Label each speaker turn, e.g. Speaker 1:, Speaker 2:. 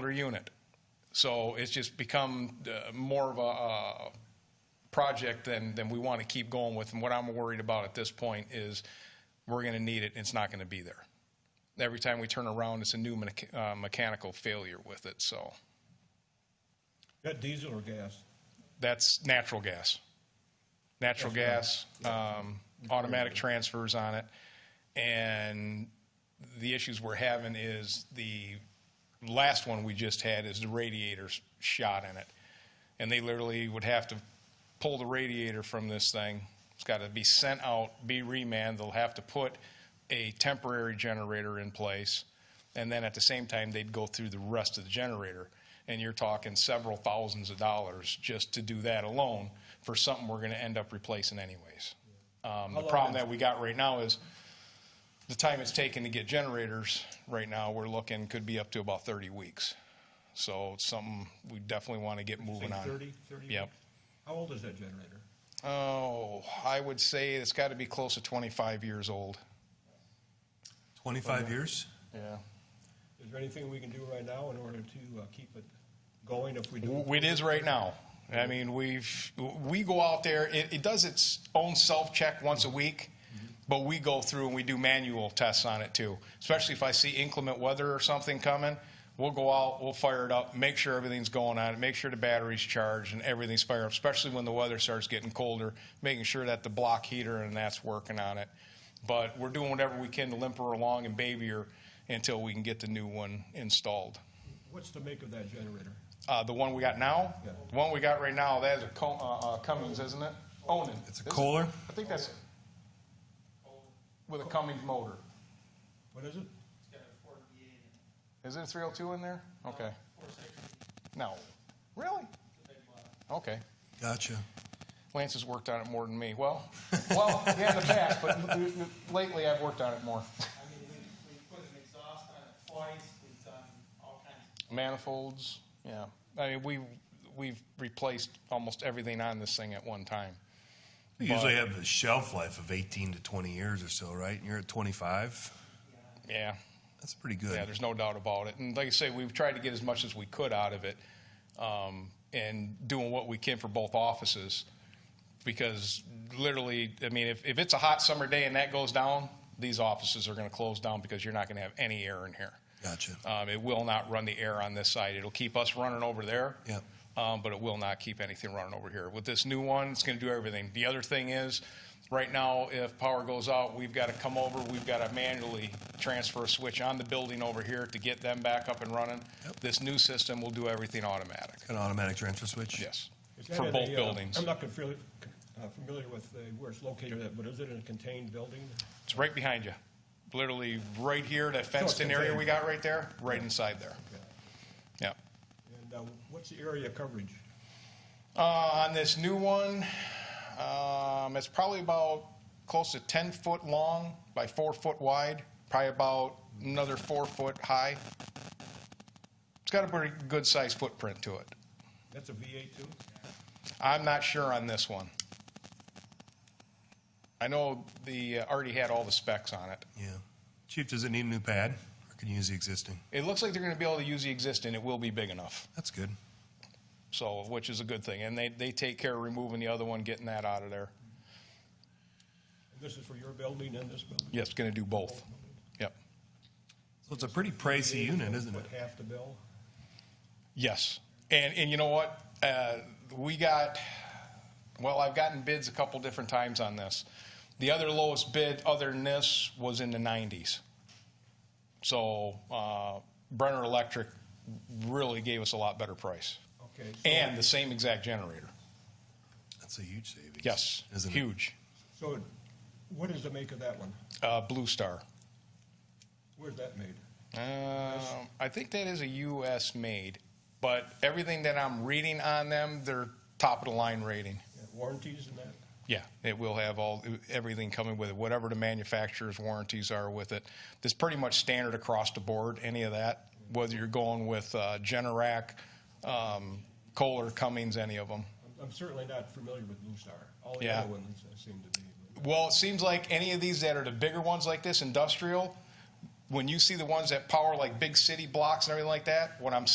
Speaker 1: unit. So it's just become uh, more of a uh, project than, than we want to keep going with. And what I'm worried about at this point is we're going to need it, and it's not going to be there. Every time we turn around, it's a new mecha- uh, mechanical failure with it, so
Speaker 2: Got diesel or gas?
Speaker 1: that's natural gas. Natural gas, um, automatic transfers on it. And the issues we're having is the last one we just had is the radiator's shot in it. And they literally would have to pull the radiator from this thing. It's got to be sent out, be remanned. They'll have to put a temporary generator in place. And then at the same time, they'd go through the rest of the generator. And you're talking several thousands of dollars just to do that alone for something we're going to end up replacing anyways. Um, the
Speaker 2: long
Speaker 1: problem
Speaker 2: is-
Speaker 1: that we got right now is the time it's taken to get generators right now, we're looking could be up to about 30 weeks. So it's something we definitely want to get
Speaker 2: Say
Speaker 1: moving on.
Speaker 2: 30, 30?
Speaker 1: Yep.
Speaker 2: How old is that generator?
Speaker 1: Oh, I would say it's got to be close to 25 years old.
Speaker 3: 25 years?
Speaker 1: Yeah.
Speaker 2: Is there anything we can do right now in order to uh, keep it going if we do?
Speaker 1: It is right now. I mean, we've, we go out there, it, it does its own self-check once a week, but we go through and we do manual tests on it too. Especially if I see inclement weather or something coming, we'll go out, we'll fire it up, make sure everything's going on, make sure the battery's charged and everything's fired up, especially when the weather starts getting colder, making sure that the block heater and that's working on it. But we're doing whatever we can to limp her along and baby her until we can get the new one installed.
Speaker 2: What's the make of that generator?
Speaker 1: Uh, the one we got now,
Speaker 2: Yeah.
Speaker 1: the one we got right now, that is a Co- uh, uh, Cummins, isn't it? Onan.
Speaker 3: It's a
Speaker 1: This-
Speaker 3: Kohler?
Speaker 1: I think that's with a Cummins motor.
Speaker 2: What is it?
Speaker 1: Is it a 302 in there? Okay. No. Really? Okay.
Speaker 3: Gotcha.
Speaker 1: Lance has worked on it more than me. Well, well, yeah, in the past, but n- n- lately I've worked on it more.
Speaker 4: I mean, we, we put an exhaust on it twice, we've done all kinds of
Speaker 1: Manifolds. Yeah. I mean, we we've replaced almost everything on this thing at one time.
Speaker 3: You usually have a shelf life of 18 to 20 years or so, right? And you're at 25.
Speaker 1: Yeah.
Speaker 3: That's pretty good.
Speaker 1: Yeah, there's no doubt about it. And like I say, we've tried to get as much as we could out of it um, and doing what we can for both offices because literally, I mean, if, if it's a hot summer day and that goes down, these offices are going to close down because you're not going to have any air in here.
Speaker 3: Gotcha.
Speaker 1: Um, it will not run the air on this side. It'll keep us running over there.
Speaker 3: Yep.
Speaker 1: Um, but it will not keep anything running over here. With this new one, it's going to do everything. The other thing is, right now, if power goes out, we've got to come over. We've got to manually transfer a switch on the building over here to get them back up and running.
Speaker 3: Yep.
Speaker 1: This new system will do everything automatic.
Speaker 3: An automatic transfer switch?
Speaker 1: Yes,
Speaker 2: Is that
Speaker 1: for
Speaker 2: in
Speaker 1: both
Speaker 2: a, uh,
Speaker 1: buildings.
Speaker 2: I'm not confili- uh, familiar with the- where it's located, at, but is it in a contained building?
Speaker 1: It's right behind you. Literally right here, that fenced-in area we got right there, right inside there. Yep.
Speaker 2: And uh, what's the area coverage?
Speaker 1: Uh, on this new one, um, it's probably about close to 10 foot long by four foot wide, probably about another four foot high. It's got a pretty good sized footprint to it.
Speaker 2: That's a V8 too?
Speaker 1: I'm not sure on this one. I know the, uh, already had all the specs on it.
Speaker 3: Yeah. Chief, does it need a new pad or can you use the existing?
Speaker 1: It looks like they're gonna be able to use the existing, it will be big enough,
Speaker 3: That's good.
Speaker 1: so, which is a good thing. And they, they take care of removing the other one, getting that out of there.
Speaker 2: And This is for your building and this building?
Speaker 1: Yes, gonna do both. Yep.
Speaker 3: So it's a pretty pricey unit, isn't it?
Speaker 2: What, half the bill?
Speaker 1: Yes. And, and you know what? Uh, we got, well, I've gotten bids a couple different times on this. The other lowest bid, other than this, was in the 90s. So uh, Brenner Electric really gave us a lot better price.
Speaker 2: Okay. so-
Speaker 1: And the same exact generator.
Speaker 3: That's a huge savings.
Speaker 1: Yes,
Speaker 3: Isn't it?
Speaker 1: huge.
Speaker 2: So what is the make of that one?
Speaker 1: Uh, Blue Star.
Speaker 2: Where's that made?
Speaker 1: Um, I think that is a US made, but everything that I'm reading on them, they're top of the line rating.
Speaker 2: Yeah, Warranties and that?
Speaker 1: Yeah, it will have all, everything coming with it, whatever the manufacturer's warranties are with it. It's pretty much standard across the board, any of that, whether you're going with uh, Generac, um, Kohler, Cummings, any of them.
Speaker 2: I'm- I'm certainly not familiar with Blue Star. All the
Speaker 1: Yeah.
Speaker 2: other ones uh, seem to be.
Speaker 1: Well, it seems like any of these that are the bigger ones like this, industrial, when you see the ones that power like big city blocks and everything like that, what I'm